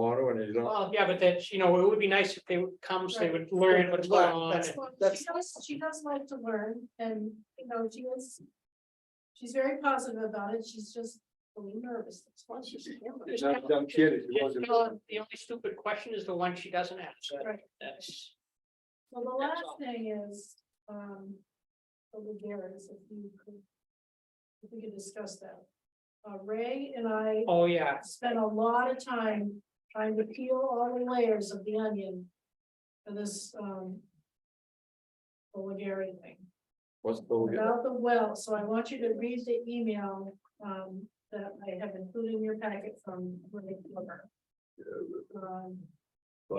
you know? Well, yeah, but that, you know, it would be nice if they would come, so they would learn what's going on. That's- and- Well, She that's- does, she does like to learn and, you know, she is. She's very positive about it. She's just a little nervous. That's why she's nervous. I'm I'm kidding. it Just wasn't- tell her The only stupid question is the one she doesn't ask. Right. That's, Well, the That's last all. thing is, um, the Legares, if you could. If we could discuss that. Uh, Ray and I oh, yeah, spent a lot of time trying to peel all the layers of the onion. For this, um. The Legare thing. What's the- About the well, so I want you to read the email um that I have included in your packet from Renee Glover. Um,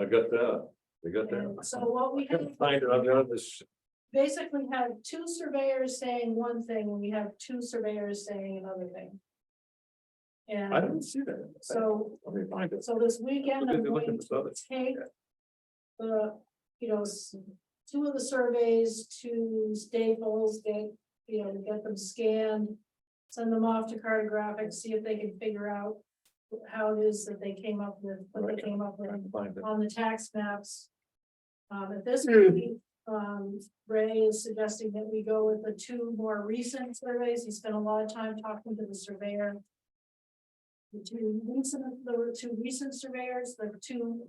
I got that, I got that. and so what we have Find it, I've got this, basically had two surveyors saying one thing, and we have two surveyors saying another thing. I And didn't see that. so, Let me find it. so this weekend, Look I'm at- look at going this other- to take the, you know, s- two of the surveys to Staples, get, you know, get them scanned. Send them off to cartographic, see if they can figure out how it is that they came up with, what they Right. came up with Trying to find it. on the tax maps. Um, at this Hmm. point, um, Ray is suggesting that we go with the two more recent surveys. He spent a lot of time talking to the surveyor. The two recent, there were two recent surveyors, the two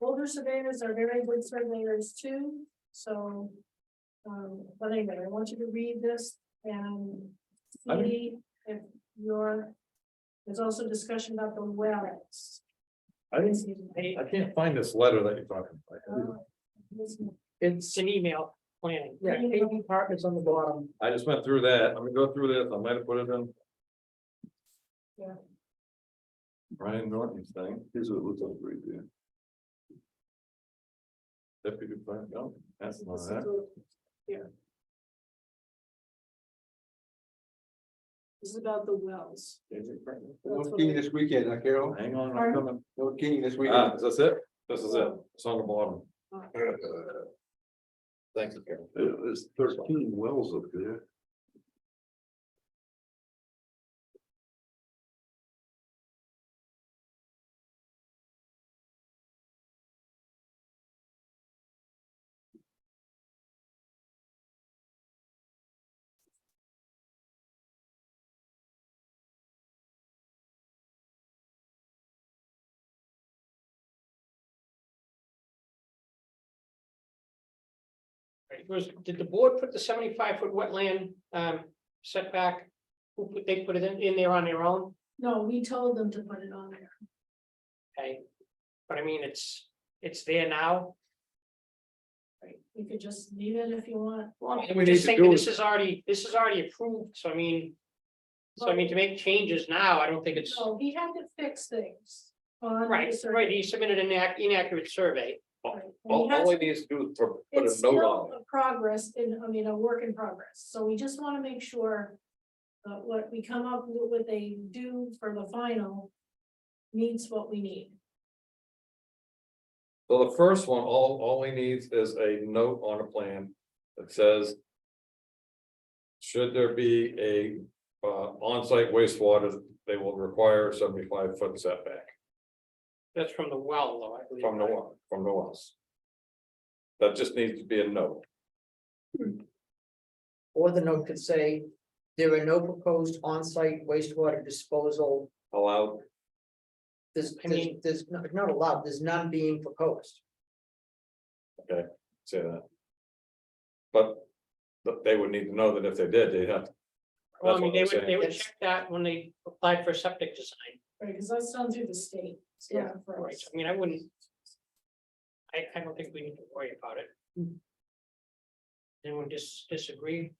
older surveyors are very good surveyors too, so. Um, but anyway, I want you to read this and I mean- see if your, there's also discussion about the wells. I didn't, see- I can't find this letter that you're talking about. it's an email planning. Yeah, eight apartments on the bottom. I just went through that, I'm gonna go through this, I might have put it in. Yeah. Brian Norton's thing. Here's what it looks like right there. Deputy Plan, no, that's not that. This is about the wells. No skiing this weekend, huh, Carol? Hang on, I'm Pardon? coming. No skiing this Ah, weekend. is this it? This is it, it's on the bottom. Thanks, Carol. There's thirteen wells up there. Right, Was, did the board put the seventy-five foot wetland um setback? Who put, they put it in, in there on their own, No, we told them to put it on there. okay? But I mean, it's, it's there now. Right, you could just leave it if you want. Well, we I'm need just to thinking do this is- is already, this is already approved, so I mean. So I mean, to make changes now, I don't think it's, So he had to fix things. on right, his survey. right, he submitted an inac- inaccurate survey. Right, and he All, has- all he needs to do is pro- put It's a note still on it. a progress in, I mean, a work in progress, so we just wanna make sure. Uh, what we come up with, what they do for the final. Meets what we need. So the first one, all, all he needs is a note on a plan that says. Should there be a, uh, onsite wastewater, they will require seventy-five foot setback That's from the well, though, I believe. from the, right? wa- from the wells. That just needs to be a note. Or the note could say, there are no proposed on-site wastewater disposal. allowed, There's, I there's, mean- there's no- not allowed, there's none being proposed. say that. But, but they would need to know that if they did, they'd have. to- Well, That's what I mean, they I'm would, saying. they would Yes. check that when they applied for septic design, Right, cause that's done through the state. it's Yeah, not for right, us. I mean, I wouldn't. I, I don't think we need to worry about it. Hmm. Anyone dis- disagree?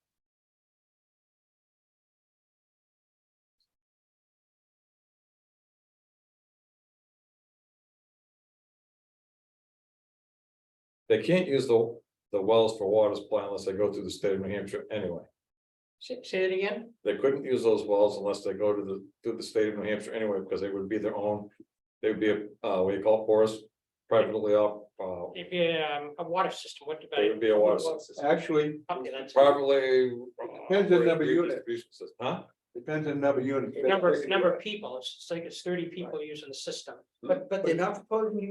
They can't use the, the wells for water supply unless they go through the state of New Hampshire anyway. Say, say it again, They couldn't use those wells unless they go to the, through the state of New Hampshire anyway, because they would be their own. They would be a, uh, what do you call it, porous, privately op, uh, if you, um, a water system, what about? they would be a water system. Actually, Something that's- Privately. Depends on number of units. distribution system, Huh? depends on number of units. Number, number of people, it's like it's thirty people using the system. But, but they're not proposing